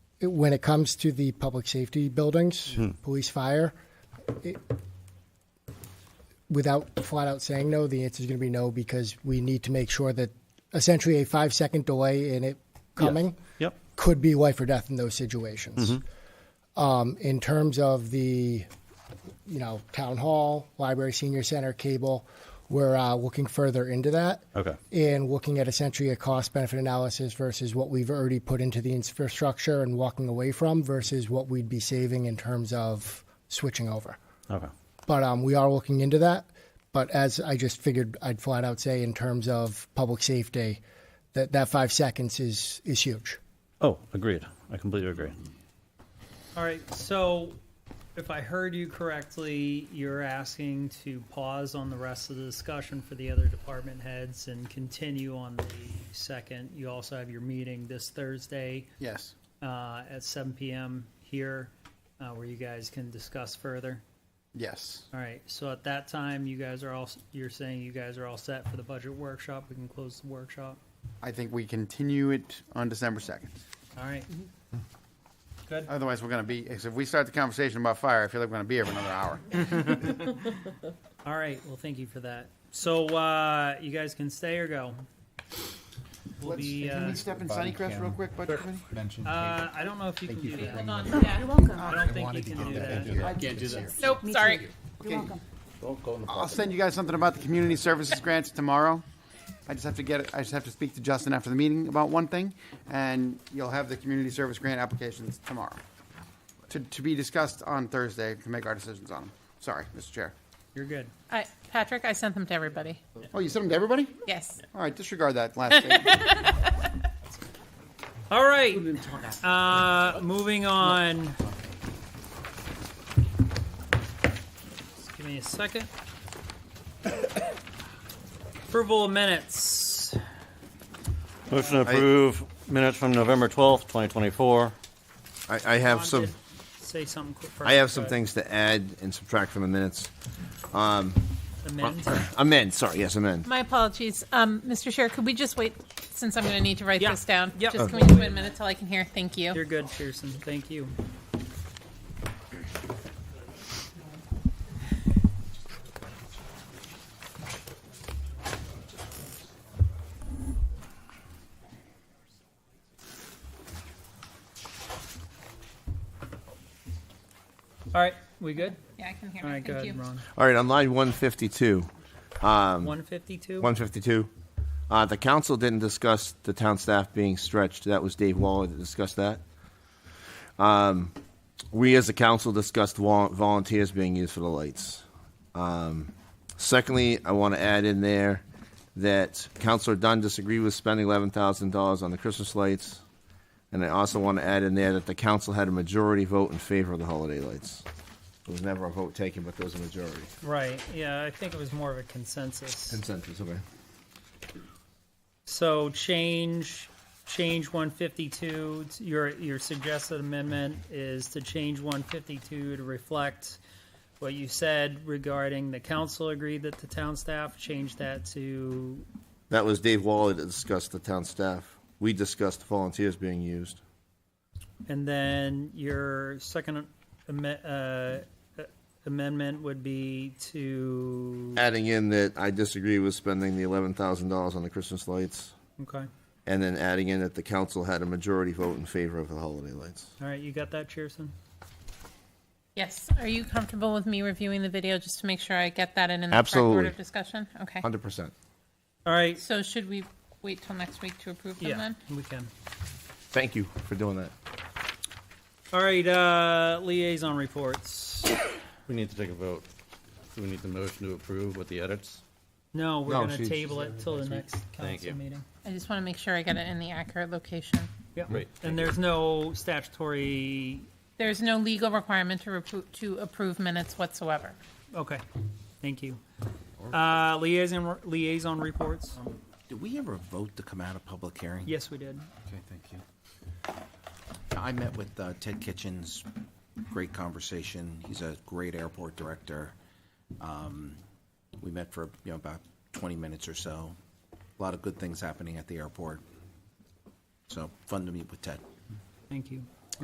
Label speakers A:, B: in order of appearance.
A: it- when it comes to the public safety buildings, police, fire, it- without flat out saying no, the answer is going to be no because we need to make sure that essentially a five second delay in it coming
B: Yep.
A: could be life or death in those situations. Um, in terms of the, you know, town hall, library, senior center, cable, we're uh, looking further into that.
B: Okay.
A: And looking at essentially a cost benefit analysis versus what we've already put into the infrastructure and walking away from versus what we'd be saving in terms of switching over.
B: Okay.
A: But um, we are looking into that. But as I just figured, I'd flat out say in terms of public safety, that that five seconds is is huge.
B: Oh, agreed. I completely agree.
C: All right, so if I heard you correctly, you're asking to pause on the rest of the discussion for the other department heads and continue on the second. You also have your meeting this Thursday
D: Yes.
C: uh, at seven PM here, uh, where you guys can discuss further.
D: Yes.
C: All right, so at that time, you guys are all, you're saying you guys are all set for the budget workshop, we can close the workshop?
D: I think we continue it on December 2nd.
C: All right. Good.
D: Otherwise, we're going to be, if we start the conversation about fire, I feel like we're going to be here for another hour.
C: All right. Well, thank you for that. So uh, you guys can stay or go. We'll
D: Let's-
C: be.
D: Can
C: Uh,
D: we step in Sunnycrest real quick, Budget Committee?
E: mentioned.
C: uh, I don't know if you can do that.
F: Hold on, yeah, you're welcome.
C: I don't think you can do that.
D: Can't do that.
F: Nope, sorry.
D: Okay.
F: You're welcome.
D: I'll send you guys something about the community services grants tomorrow. I just have to get, it. I just have to speak to Justin after the meeting about one thing, and you'll have the community service grant applications tomorrow. To, to be discussed on Thursday to make our decisions on them. Sorry, Mr. Chair.
C: You're good.
G: I, Patrick, I sent them to everybody.
D: Oh, you sent them to everybody?
G: Yes.
D: All right, disregard that last thing.
C: All right. Uh, moving on. Just give me a second. Approval of minutes.
B: Motion to approve minutes from November 12th, 2024.
H: I, I have some,
C: Wanted to Say something quick first.
H: I have some
C: but
H: things to add and subtract from the minutes.
C: amend.
H: Amend, sorry, yes, amend.
G: My apologies. Um, Mr. Chair, could we just wait, since I'm going to need to write
C: Yeah.
G: this down?
C: Yep.
G: Just can we just wait a minute till I can hear? Thank
C: You're
G: you.
C: good, Pearson. Thank you. All right, we good?
G: Yeah, I can hear.
C: All right, go
G: Thank you.
C: ahead, Ron.
H: All right, on line one fifty-two,
C: One fifty-two?
H: one fifty-two, uh, the council didn't discuss the town staff being stretched. That was Dave Waller that discussed that. Um, we as a council discussed vol- volunteers being used for the lights. Um, Secondly, I want to add in there that Counselor Dunn disagreed with spending eleven thousand dollars on the Christmas lights. And I also want to add in there that the council had a majority vote in favor of the holiday lights. There was never a vote taken, but there was a majority.
C: Right, yeah, I think it was more of a consensus.
H: Consensus, okay.
C: So change, change one fifty-two, your, your suggested amendment is to change one fifty-two to reflect what you said regarding the council agreed that the town staff, change that to,
H: That was Dave Waller that discussed the town staff. We discussed volunteers being used.
C: and then your second amme- uh, amendment would be to,
H: Adding in that I disagree with spending the eleven thousand dollars on the Christmas lights.
C: okay,
H: And then adding in that the council had a majority vote in favor of the holiday lights.
C: all right, you got that, Cheerson?
G: Yes. Are you comfortable with me reviewing the video just to make sure I get that in in the correct
H: Absolutely.
G: order of discussion? Okay.
H: Hundred percent.
C: All right,
G: So should we wait till next week to approve them
C: yeah,
G: then?
C: we can.
H: Thank you for doing that.
C: All right, uh, liaison reports.
E: We need to take a vote. Do we need the motion to approve with the edits?
C: No, we're
H: No,
C: gonna
H: she's-
C: table it till the next
E: Thank
C: council
E: you.
C: meeting.
G: I just want to make sure I get it in the accurate location.
C: Yep.
E: Great.
C: And there's no statutory,
G: There's no legal requirement to repro- to approve minutes whatsoever.
C: okay, thank you. Uh, liaison, liaison reports,
I: Did we ever vote to come out of public hearing?
C: yes, we did.
I: Okay, thank you. I met with uh, Ted Kitchens, great conversation. He's a great airport director. Um, We met for, you know, about 20 minutes or so. A lot of good things happening at the airport. So fun to meet with Ted.
C: Thank you.